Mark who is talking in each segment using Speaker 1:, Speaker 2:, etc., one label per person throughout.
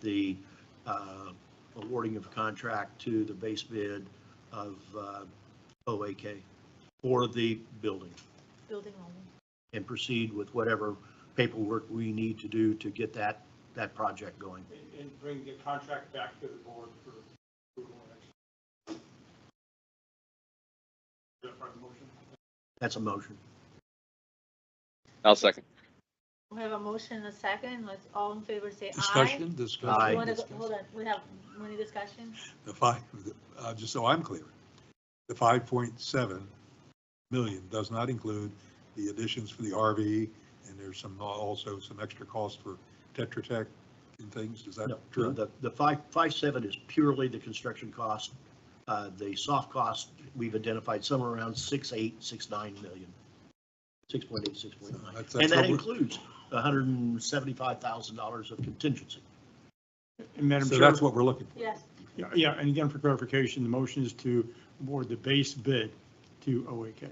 Speaker 1: the uh, awarding of contract to the base bid of uh, OAK for the building
Speaker 2: building only.
Speaker 1: and proceed with whatever paperwork we need to do to get that, that project going.
Speaker 3: and- and bring the contract back to the board for approval and action. Is that part of the motion?
Speaker 1: That's a motion.
Speaker 4: I'll second.
Speaker 2: We have a motion and a second, let's, all in favor say aye.
Speaker 5: Discussion,
Speaker 1: Aye.
Speaker 2: You
Speaker 5: discussion,
Speaker 2: wanna go- Hold
Speaker 5: discussion.
Speaker 2: on, we have money discussion,
Speaker 5: The five, uh, just so I'm clear, the five point seven million does not include the additions for the RV, and there's some, uh, also some extra costs for Tetra Tech and things, is that
Speaker 1: No,
Speaker 5: true? Uh,
Speaker 1: The, the five, five seven is purely the construction cost. Uh, The soft cost, we've identified somewhere around six, eight, six, nine million. Six point eight, six point nine.
Speaker 5: That's- that's
Speaker 1: And that
Speaker 5: what we're-
Speaker 1: includes hundred and seventy-five thousand dollars of contingency.
Speaker 3: And Madam
Speaker 5: So
Speaker 3: Chair.
Speaker 5: that's what we're looking for.
Speaker 2: yes,
Speaker 3: Yeah, Yeah, and again, for clarification, the motion is to award the base bid to OAK.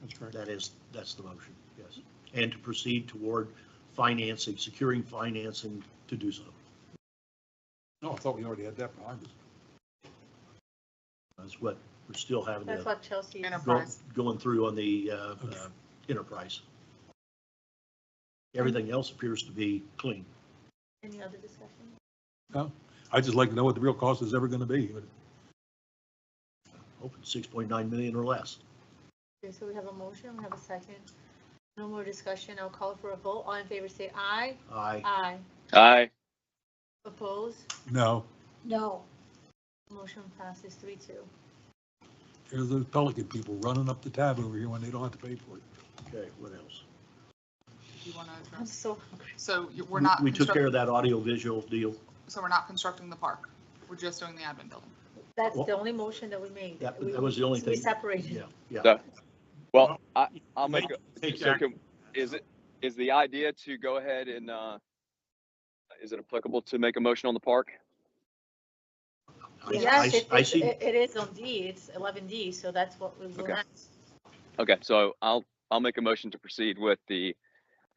Speaker 3: That's correct.
Speaker 1: That is, that's the motion, yes. And to proceed toward financing, securing financing to do so.
Speaker 5: No, I thought we already had that behind us.
Speaker 1: That's what we're still having
Speaker 2: that's
Speaker 1: to,
Speaker 2: what Chelsea is.
Speaker 1: go-
Speaker 6: Enterprise.
Speaker 1: going through on the uh,
Speaker 5: Okay.
Speaker 1: uh, enterprise. Everything else appears to be clean.
Speaker 2: Any other discussion?
Speaker 5: I'd just like to know what the real cost is ever gonna be, but
Speaker 1: Open 6.9 million or less.
Speaker 2: Okay, so we have a motion, we have a second, no more discussion, I'll call for a vote, all in favor say aye.
Speaker 1: Aye.
Speaker 2: Aye.
Speaker 4: Aye.
Speaker 2: Oppose?
Speaker 5: no,
Speaker 2: No. Motion passes three two.
Speaker 5: there's those Pelican people running up the tab over here when they don't have to pay for it.
Speaker 1: Okay, what else?
Speaker 6: You wanna
Speaker 2: I'm
Speaker 6: address-
Speaker 2: so,
Speaker 6: So you- we're not,
Speaker 1: We took care
Speaker 6: construct-
Speaker 1: of that audio visual deal.
Speaker 6: so we're not constructing the park. We're just doing the admin building.
Speaker 2: that's
Speaker 1: Well-
Speaker 2: the only motion that we made.
Speaker 1: That
Speaker 2: We-
Speaker 1: that was the only
Speaker 2: We
Speaker 1: thing.
Speaker 2: separated.
Speaker 1: Yeah, yeah.
Speaker 4: Well, I, I'll make a,
Speaker 3: Take
Speaker 4: so
Speaker 3: that.
Speaker 4: can, is it, is the idea to go ahead and, uh, is it applicable to make a motion on the park?
Speaker 1: I-
Speaker 2: Yes,
Speaker 1: I-
Speaker 2: it
Speaker 1: I
Speaker 2: is,
Speaker 1: see,
Speaker 2: it it is on D, it's eleven D, so that's what we will
Speaker 4: Okay.
Speaker 2: ask.
Speaker 4: Okay, so I'll, I'll make a motion to proceed with the,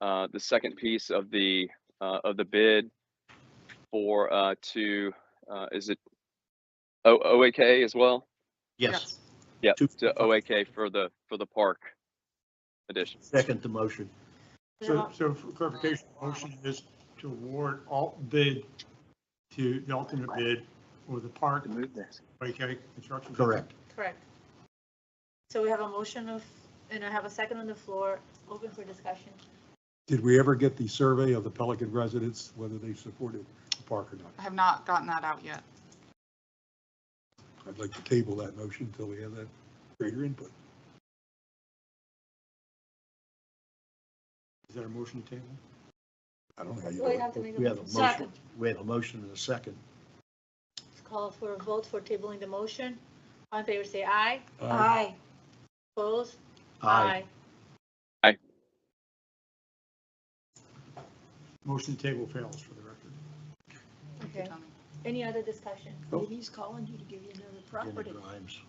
Speaker 4: uh, the second piece of the, uh, of the bid for, uh, to, uh, is it O, OAK as well?
Speaker 1: yes,
Speaker 4: Yeah,
Speaker 1: Two-
Speaker 4: to OAK for the, for the park addition.
Speaker 1: second the motion.
Speaker 2: We have
Speaker 3: So,
Speaker 2: a-
Speaker 3: so for clarification, the motion is to award all bid to the alternate bid for the park,
Speaker 4: Move this.
Speaker 3: OAK construction.
Speaker 1: Correct.
Speaker 2: Correct. So we have a motion of, and I have a second on the floor, open for discussion.
Speaker 5: Did we ever get the survey of the Pelican residents, whether they supported the park or not?
Speaker 6: I have not gotten that out yet.
Speaker 5: I'd like to table that motion until we have that greater input.
Speaker 3: Is there a motion to table?
Speaker 5: I don't know how you.
Speaker 2: Well, you have to
Speaker 5: do it.
Speaker 2: make a
Speaker 1: We have a
Speaker 2: motion.
Speaker 1: motion, we have a motion and a second.
Speaker 2: Let's Call for a vote for tabling the motion. All in favor, say aye.
Speaker 5: Uh,
Speaker 2: Opposed?
Speaker 1: Aye.
Speaker 3: Motion to table fails for the record.
Speaker 6: Thank you,
Speaker 2: Okay,
Speaker 6: Tony.
Speaker 2: any other discussion?
Speaker 7: Maybe he's calling you to give you another
Speaker 1: Jenny
Speaker 7: property.
Speaker 1: Grimes.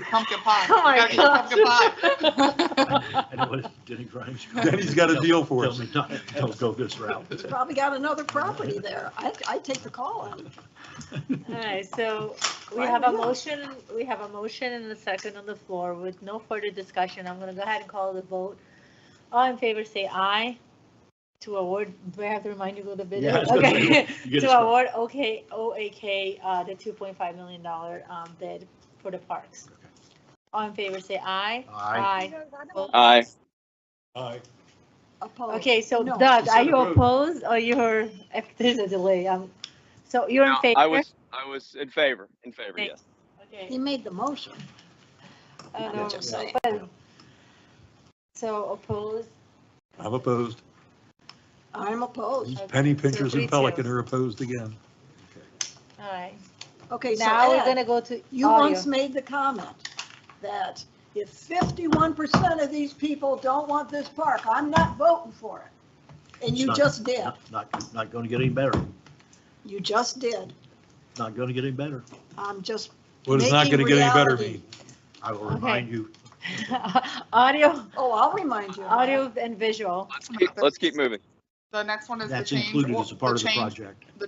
Speaker 6: Pumpkin pie.
Speaker 2: Oh my
Speaker 6: We gotta get the Pumpkin pie.
Speaker 1: I know what Jenny Grimes.
Speaker 5: Denny's got a deal for
Speaker 1: Tell
Speaker 5: us.
Speaker 1: me not, don't go this route.
Speaker 7: He's probably got another property there. I, I take the call on it.
Speaker 2: All right, so we
Speaker 7: Why
Speaker 2: have a
Speaker 7: not?
Speaker 2: motion, we have a motion and a second on the floor with no further discussion. I'm gonna go ahead and call the vote. All in favor, say aye. To award, do I have to remind you who the bid
Speaker 1: Yeah, I
Speaker 2: is?
Speaker 1: was gonna
Speaker 2: Okay.
Speaker 1: You get
Speaker 2: To
Speaker 1: us-
Speaker 2: award OK, OAK, uh, the two point five million dollar, um, bid for the parks.
Speaker 1: Okay.
Speaker 2: All in favor, say aye.
Speaker 6: Uh,
Speaker 1: Aye.
Speaker 4: Aye.
Speaker 5: Aye.
Speaker 7: Opposed.
Speaker 2: Okay, so
Speaker 7: No.
Speaker 2: Doug, are you
Speaker 3: Consider vote.
Speaker 2: opposed or you're, if there's a delay, um, so you're in
Speaker 4: No,
Speaker 2: favor?
Speaker 4: I was, I was in favor, in favor,
Speaker 2: Thanks.
Speaker 4: yes.
Speaker 2: Okay.
Speaker 7: He made the motion.
Speaker 2: I
Speaker 7: I'm
Speaker 2: know,
Speaker 7: just saying.
Speaker 2: but- So opposed?
Speaker 5: I'm opposed.
Speaker 7: I'm opposed.
Speaker 5: These penny pinchers
Speaker 2: So me
Speaker 5: and Pelican
Speaker 2: too.
Speaker 5: are opposed again.
Speaker 2: All right,
Speaker 7: Okay, so
Speaker 2: now we're
Speaker 7: Ed,
Speaker 2: gonna go to
Speaker 7: you
Speaker 2: audio.
Speaker 7: once made the comment that if fifty-one percent of these people don't want this park, I'm not voting for it. And
Speaker 1: It's
Speaker 7: you
Speaker 1: not-
Speaker 7: just did.
Speaker 1: Not, not going to get any better.
Speaker 7: You just did.
Speaker 1: Not going to get any better.
Speaker 7: I'm just,
Speaker 5: What is not going to
Speaker 7: Making
Speaker 5: get any better
Speaker 7: reality.
Speaker 5: mean?
Speaker 1: I will remind you,
Speaker 2: Audio,
Speaker 7: oh, I'll remind you. of that.
Speaker 2: audio and visual.
Speaker 4: Let's keep, let's keep moving.
Speaker 6: The next one is the
Speaker 1: that's
Speaker 6: change.
Speaker 1: included
Speaker 6: or-
Speaker 1: as a part of
Speaker 6: the
Speaker 1: the
Speaker 6: change
Speaker 1: project.